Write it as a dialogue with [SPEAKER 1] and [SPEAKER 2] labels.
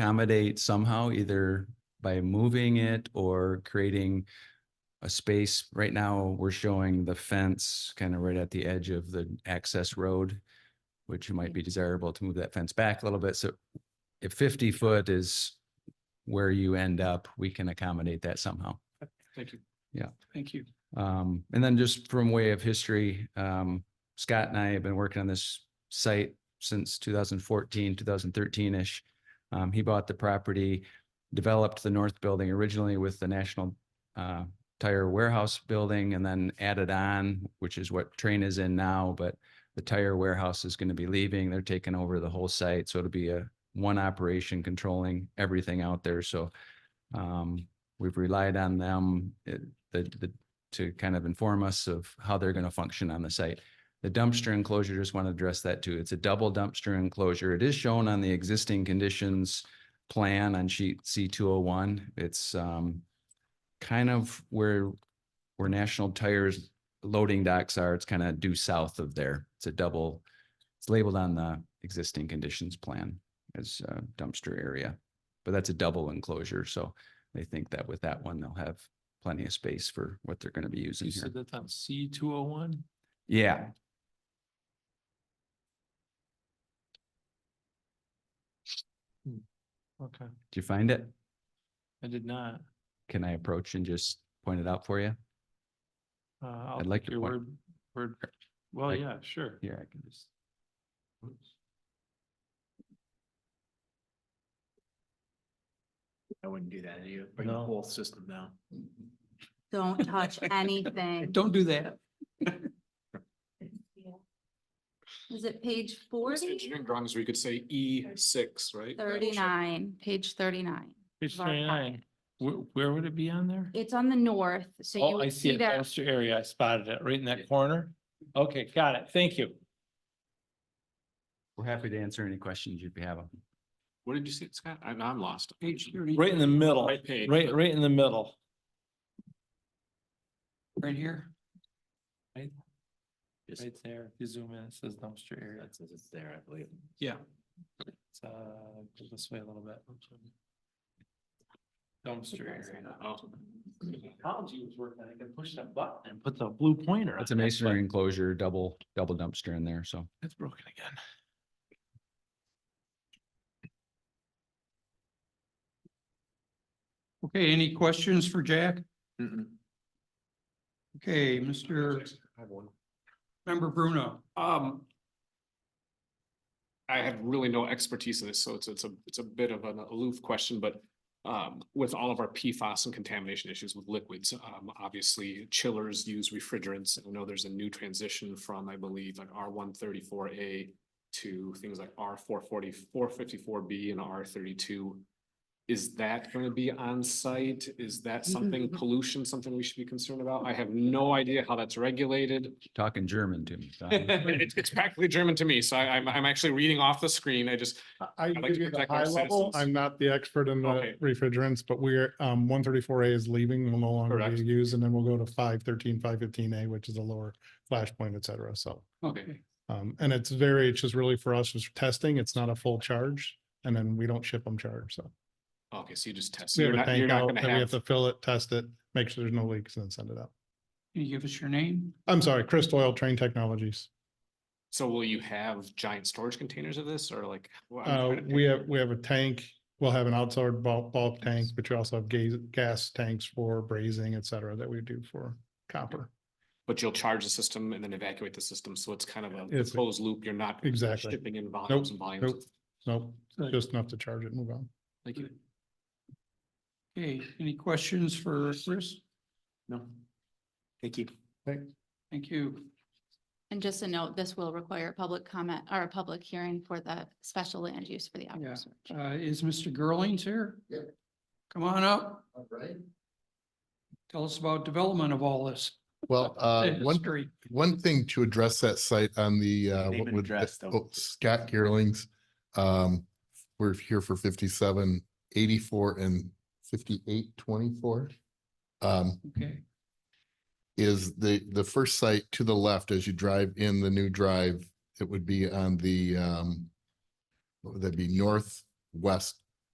[SPEAKER 1] accommodate somehow, either by moving it or creating a space. Right now, we're showing the fence kind of right at the edge of the access road, which it might be desirable to move that fence back a little bit. So if fifty foot is where you end up, we can accommodate that somehow.
[SPEAKER 2] Thank you.
[SPEAKER 1] Yeah.
[SPEAKER 2] Thank you.
[SPEAKER 1] Um, and then just from way of history, um, Scott and I have been working on this site since 2014, 2013-ish. Um, he bought the property, developed the north building originally with the National uh, Tire Warehouse Building and then added on, which is what Train is in now, but the tire warehouse is going to be leaving. They're taking over the whole site. So it'll be a one operation controlling everything out there. So um, we've relied on them. It- The, the to kind of inform us of how they're going to function on the site. The dumpster enclosure, just want to address that too. It's a double dumpster enclosure. It is shown on the existing conditions plan on sheet C two oh one. It's um kind of where where National Tires loading docks are. It's kind of due south of there. It's a double, it's labeled on the existing conditions plan as a dumpster area. But that's a double enclosure, so they think that with that one, they'll have plenty of space for what they're going to be using
[SPEAKER 2] You
[SPEAKER 1] here.
[SPEAKER 2] said that's on C two oh one?
[SPEAKER 1] Yeah.
[SPEAKER 2] Okay,
[SPEAKER 1] Did you find it?
[SPEAKER 2] I did not.
[SPEAKER 1] Can I approach and just point it out for you?
[SPEAKER 2] Uh, I'll
[SPEAKER 1] I'd like
[SPEAKER 2] take
[SPEAKER 1] to
[SPEAKER 2] Your
[SPEAKER 1] point-
[SPEAKER 2] word, word, well,
[SPEAKER 1] I-
[SPEAKER 2] yeah, sure.
[SPEAKER 1] Here, I can just.
[SPEAKER 2] I wouldn't do that to you.
[SPEAKER 3] Bring the whole
[SPEAKER 2] system down.
[SPEAKER 3] Don't touch anything.
[SPEAKER 2] Don't do that.
[SPEAKER 3] Is it page forty?
[SPEAKER 4] Engineering drawings, we could say E six, right?
[SPEAKER 3] Thirty-nine, page thirty-nine.
[SPEAKER 2] Page
[SPEAKER 3] of our packet.
[SPEAKER 2] twenty-nine. Where, where would it be on there?
[SPEAKER 3] It's on the north, so you
[SPEAKER 2] Oh, I
[SPEAKER 3] would
[SPEAKER 2] see
[SPEAKER 3] see
[SPEAKER 2] it,
[SPEAKER 3] that.
[SPEAKER 2] dumpster area. I spotted it right in that corner. Okay, got it. Thank you.
[SPEAKER 1] We're happy to answer any questions if you have them.
[SPEAKER 4] What did you say, Scott? I'm, I'm lost. Page
[SPEAKER 2] Right in the middle,
[SPEAKER 4] Right page.
[SPEAKER 2] right, right in the middle.
[SPEAKER 4] Right here? Yes.
[SPEAKER 2] Right there, if you zoom in, it says dumpster area. It says it's there, I believe.
[SPEAKER 4] Yeah.
[SPEAKER 2] It's, uh, go this way a little bit. Dumpster area. Oh. Technology was working, I could push that button and put the blue pointer.
[SPEAKER 1] It's a masonry enclosure, double, double dumpster in there, so.
[SPEAKER 2] It's broken again.
[SPEAKER 5] Okay, any questions for Jack? Okay, Mr.
[SPEAKER 4] I have one.
[SPEAKER 5] Member Bruno,
[SPEAKER 4] Um. I have really no expertise in this, so it's, it's a, it's a bit of an aloof question, but. Um, with all of our PFAS and contamination issues with liquids, um, obviously chillers use refrigerants. I know there's a new transition from, I believe, like R one thirty-four A. To things like R 440 454 B and R thirty-two. Is that gonna be on site? Is that something pollution, something we should be concerned about? I have no idea how that's regulated.
[SPEAKER 1] Talking German to me. Don.
[SPEAKER 4] It's, it's practically German to me, so I, I'm, I'm actually reading off the screen. I just,
[SPEAKER 6] I- I
[SPEAKER 4] like
[SPEAKER 6] can give
[SPEAKER 4] to
[SPEAKER 6] you the
[SPEAKER 4] protect our
[SPEAKER 6] high level.
[SPEAKER 4] citizens.
[SPEAKER 6] I'm not the expert in
[SPEAKER 4] Okay.
[SPEAKER 6] the refrigerants, but we're, um, one thirty-four A is leaving, will no longer
[SPEAKER 4] Correct.
[SPEAKER 6] be used, and then we'll go to 513, 515 A, which is a lower flashpoint, et cetera, so.
[SPEAKER 4] okay,
[SPEAKER 6] Um, and it's very, it's just really for us, it's testing, it's not a full charge, and then we don't ship them charged, so.
[SPEAKER 4] okay, so you just test.
[SPEAKER 6] We
[SPEAKER 4] You're
[SPEAKER 6] have a
[SPEAKER 4] not, you're
[SPEAKER 6] tank
[SPEAKER 4] not
[SPEAKER 6] out,
[SPEAKER 4] gonna
[SPEAKER 6] then we have
[SPEAKER 4] have,
[SPEAKER 6] to fill it, test it, make sure there's no leaks, and then send it out.
[SPEAKER 5] can you give us your name?
[SPEAKER 6] I'm sorry, Chris Oil Train Technologies.
[SPEAKER 4] so will you have giant storage containers of this or like? well, I'm
[SPEAKER 6] Uh,
[SPEAKER 4] trying to
[SPEAKER 6] we
[SPEAKER 4] think.
[SPEAKER 6] have, we have a tank, we'll have an outside bulk, bulk tank, but you also have gas, gas tanks for brazing, et cetera, that we do for copper.
[SPEAKER 4] But you'll charge the system and then evacuate the system, so it's kind of a
[SPEAKER 6] It's a-
[SPEAKER 4] closed loop. You're not.
[SPEAKER 6] Exactly.
[SPEAKER 4] Shipping in volumes and volumes.
[SPEAKER 6] nope. Nope, just enough to charge it and move on.
[SPEAKER 4] Thank you.
[SPEAKER 5] Okay, any questions for Chris?
[SPEAKER 2] No.
[SPEAKER 4] Thank you.
[SPEAKER 5] Thank you.
[SPEAKER 3] And just a note, this will require a public comment or a public hearing for the special land use for the
[SPEAKER 5] Yeah.
[SPEAKER 3] outdoor storage.
[SPEAKER 5] Uh, is Mr. Girlings here? Yep. Come on up. All right. Tell us about development of all this.
[SPEAKER 7] Well, uh,
[SPEAKER 5] the
[SPEAKER 7] one,
[SPEAKER 5] history.
[SPEAKER 7] one thing to address that site on the, uh, what would, oh, Scott Gearlings. Um, we're here for fifty-seven, eighty-four and fifty-eight, twenty-four. Um,
[SPEAKER 5] Okay,
[SPEAKER 7] is the, the first site to the left as you drive in the new drive, it would be on the, um, what would that be northwest